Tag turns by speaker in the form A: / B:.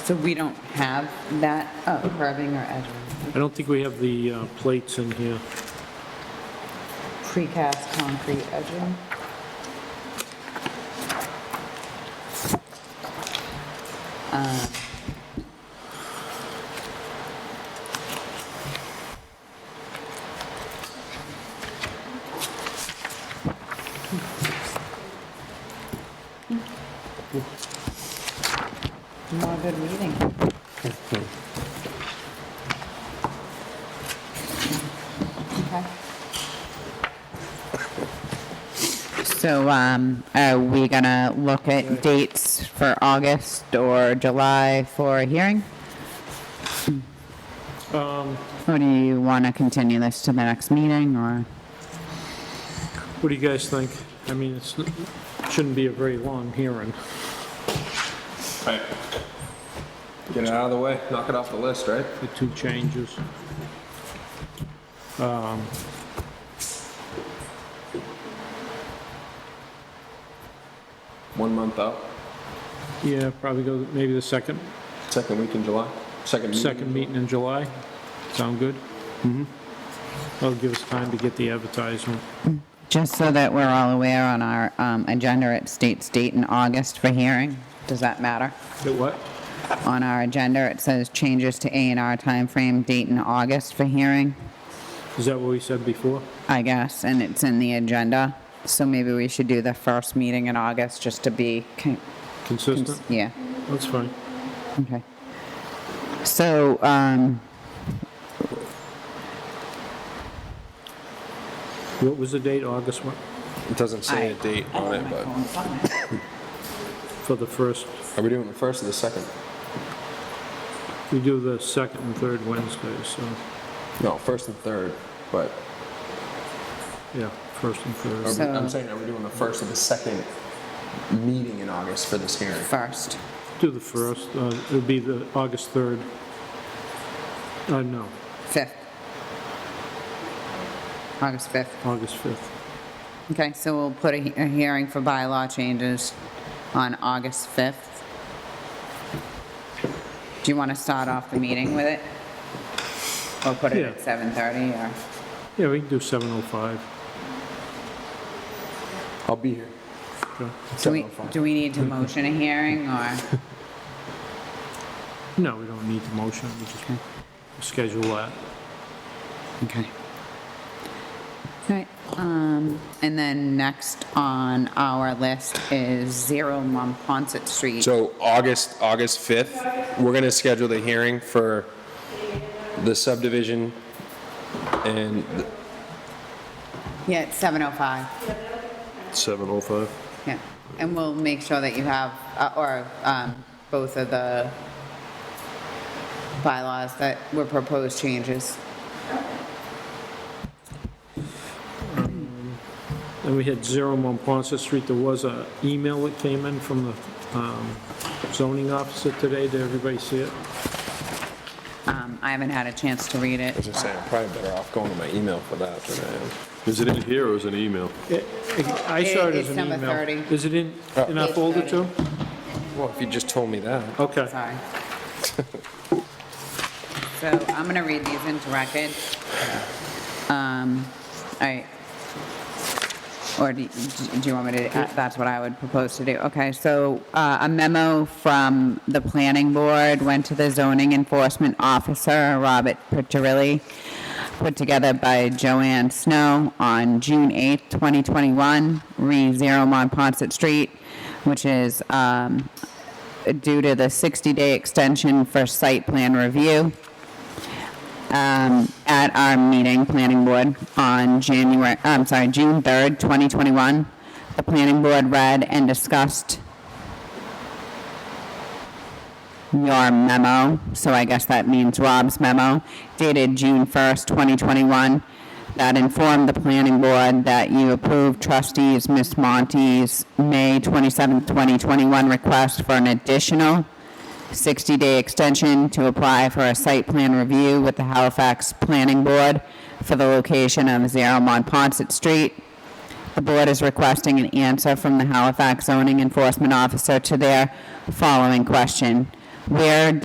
A: So we don't have that, oh, curving or edging,
B: I don't think we have the uh, plates in here.
A: precast concrete edging? Um, Hmm. Not good reading. Okay. So, um, are we gonna look at dates for August or July for a hearing? Or do you wanna continue this to the next meeting, or?
B: What do you guys think? I mean, it's, shouldn't be a very long hearing.
C: Right. Get it out of the way, knock it off the list, right?
B: the two changes. Um,
C: One month out,
B: Yeah, probably go, maybe the second,
C: second week in July, second meeting.
B: second meeting in July. Sound good? Mm-hmm. That'll give us time to get the advertisement.
A: Just so that we're all aware on our, um, agenda, it states date in August for hearing, does that matter?
B: The what?
A: On our agenda, it says changes to A and R timeframe, date in August for hearing.
B: Is that what we said before?
A: I guess, and it's in the agenda. So maybe we should do the first meeting in August just to be, con-
B: Consistent?
A: yeah,
B: That's fine.
A: okay. So, um,
B: What was the date, August one,
C: It doesn't say a date on it, but
B: for the first?
C: are we doing the first or the second?
B: We do the second and third Wednesdays, so,
C: No, first and third, but,
B: yeah, first and
C: are we-
B: third.
A: So-
C: I'm saying, are we doing the first or the second meeting in August for this hearing?
A: first,
B: Do the first, uh, it would be the August 3rd. Uh, no,
A: fifth. August fifth.
B: August 5th.
A: Okay, so we'll put a, he- a hearing for bylaw changes on August fifth. Do you want to start off the meeting with it? Or put it at
B: Yeah.
A: seven thirty or?
B: Yeah, we can do 7:05.
C: I'll be here.
B: okay.
A: Do we,
C: 7:05.
A: do we need to motion a hearing or?
B: No, we don't need the motion, we just schedule that.
A: Okay. All right, um, and then next on our list is Zero Monpont Street.
C: So August, August 5th, we're going to schedule the hearing for the subdivision and.
A: Yeah, it's seven oh five,
C: 7:05.
A: yeah. And we'll make sure that you have, uh, or, um, both of the bylaws that were proposed changes.
B: Then we had Zero Monpont Street, there was a email that came in from the um, zoning officer today, did everybody see it?
A: Um, I haven't had a chance to read it.
C: I was just saying, I'm probably better off going to my email for that than I am.
D: Is it in here or is it an email?
B: It- I saw it as
A: It's
B: an
A: number
B: email.
A: 30.
B: Is it in, in our
A: Page
B: folder
A: 30.
B: too?
C: Well, if you just told me that.
B: Okay.
A: Sorry. So I'm gonna read these into record. Um, all right. Or do, do you want me to, uh, that's what I would propose to do. Okay, so, uh, a memo from the planning board went to the zoning enforcement officer, Robert Piccirilli, put together by Joanne Snow on June 8th, 2021, re Zero Monpont Street, which is, um, due to the 60-day extension for site plan review um, at our meeting, planning board, on January, I'm sorry, June 3rd, 2021. The planning board read and discussed your memo, so I guess that means Rob's memo, dated June 1st, 2021, that informed the planning board that you approved trustees Ms. Monte's May 27th, 2021 request for an additional 60-day extension to apply for a site plan review with the Halifax Planning Board for the location of Zero Monpont Street. The board is requesting an answer from the Halifax zoning enforcement officer to their following question. where